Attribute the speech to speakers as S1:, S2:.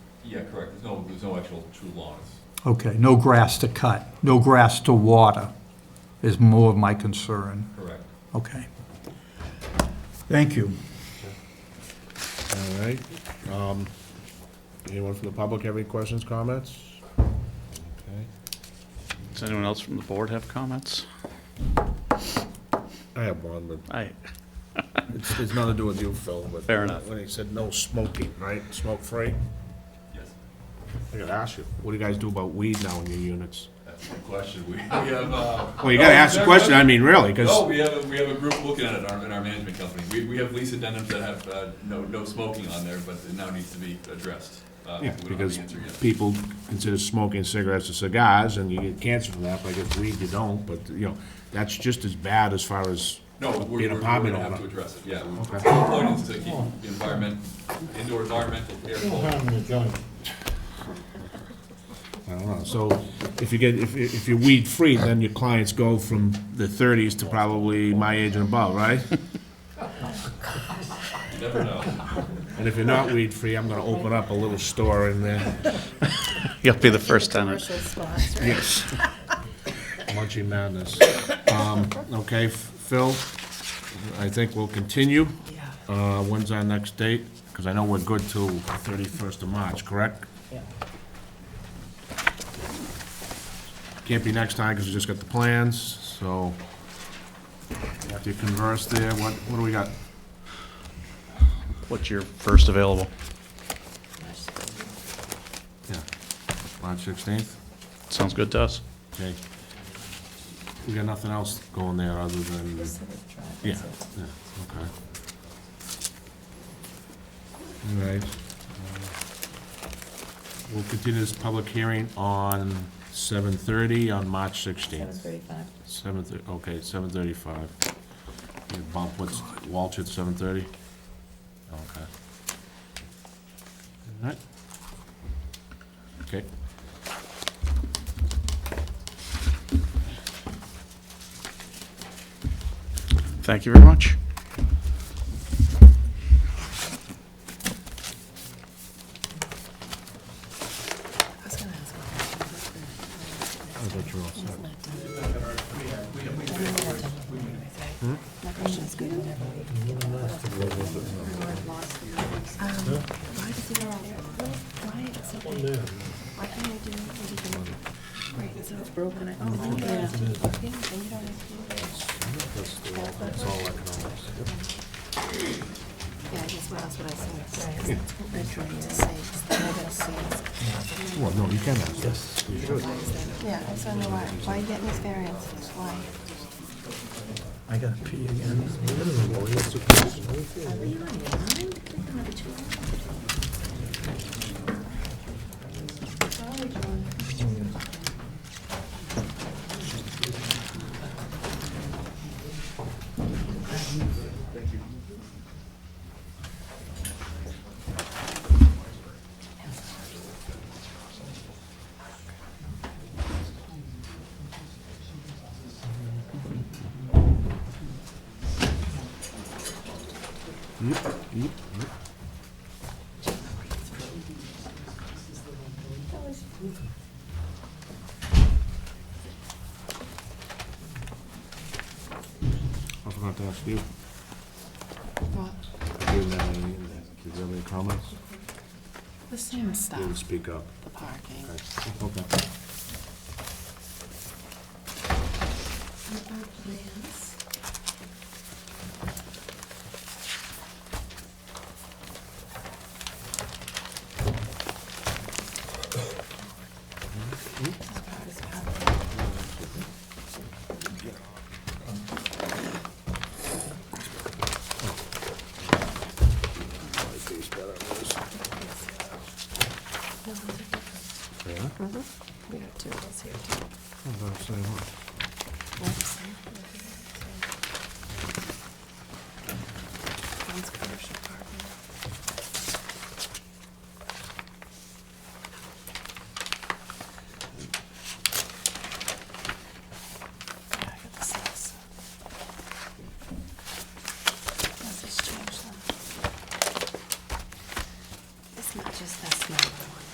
S1: yeah, correct, there's no, there's no actual true lawns.
S2: Okay, no grass to cut, no grass to water is more of my concern.
S1: correct.
S2: Okay. Thank you.
S3: All right. Um, Anyone from the public have any questions, comments? Okay.
S4: Does anyone else from the board have comments?
S3: I have one, but
S4: I,
S3: it's, it's nothing to do with you, Phil, but.
S4: Fair enough.
S3: When he said no smoking, right, smoke-free,
S1: Yes,
S3: I gotta ask you, what do you guys do about weed now in your units?
S1: that's the question. We we have, uh.
S3: Well, you gotta ask the question, I mean, really,
S1: No,
S3: because,
S1: we have, a- we have a group looking at it, our, in our management company. We, we have lease addendums that have, uh, no, no smoking on there, but it now needs to be addressed. Uh, we
S3: yeah,
S1: don't have the
S3: because
S1: answer yet.
S3: people consider smoking cigarettes and cigars, and you get cancer from that, but I guess weed you don't, but, you know, that's just as bad as far as
S1: No, we're,
S3: being
S1: we're
S3: a
S1: we're
S3: apartment
S1: gonna have to
S3: owner.
S1: address it, yeah. we-
S3: Okay.
S1: The point is to keep the environment, indoor environmental air quality.
S3: I don't know, so if you get, if, if you're weed-free, then your clients go from the thirties to probably my age and above, right?
S1: You never know.
S3: And if you're not weed-free, I'm gonna open up a little store in there.
S4: you'll be the first tenant.
S5: Commercial spots, right?
S3: Yes. Munchie madness. Um, okay, Phil, I think we'll continue. Uh, when's our next date? Because I know we're good till thirty-first of March, correct?
S6: Yeah.
S3: Can't be next time because we just got the plans, so after you converse there, what, what do we got?
S4: What's your first available?
S3: Yeah, March sixteenth?
S4: Sounds good to us.
S3: Okay. We got nothing else going there other than, yeah,
S5: Just sort of drive,
S3: yeah,
S5: that's it.
S3: okay. All right. uh, We'll continue this public hearing on seven thirty on March
S5: Seven
S3: sixteenth.
S5: thirty-five.
S3: Seven thirty, okay, seven thirty-five. You bump what's, Walsh at seven thirty? Okay. All right. Okay.
S4: Thank you very much.
S5: I was gonna ask what happened.
S3: I thought you were all
S5: He's
S3: set.
S5: not done. My question's good. Um, Why does it all, why is it? Why can't I do anything? Right, so it's broken. I- Oh, you don't have to, okay, and you don't have to. That's all Yeah, I guess what else would I say? That's what I tried to say, is that I gotta say it's-
S3: Well, no, you can ask. Yes.
S5: Yeah, I just don't know why, why you getting this variance, why?
S2: I gotta pee again.
S5: Are we on your mind? Number two. Sorry, John.
S3: I forgot to ask you.
S5: What?
S3: Do you have any, do you have any comments?
S5: The same
S3: You would
S5: stuff,
S3: speak up.
S5: the parking.
S3: Okay. Okay.
S5: With our plans. As proud as possible. No, those are different.
S3: Yeah?
S5: Mm-hmm. We got two of those here too.
S3: I'm gonna say what?
S5: One's commercial parking.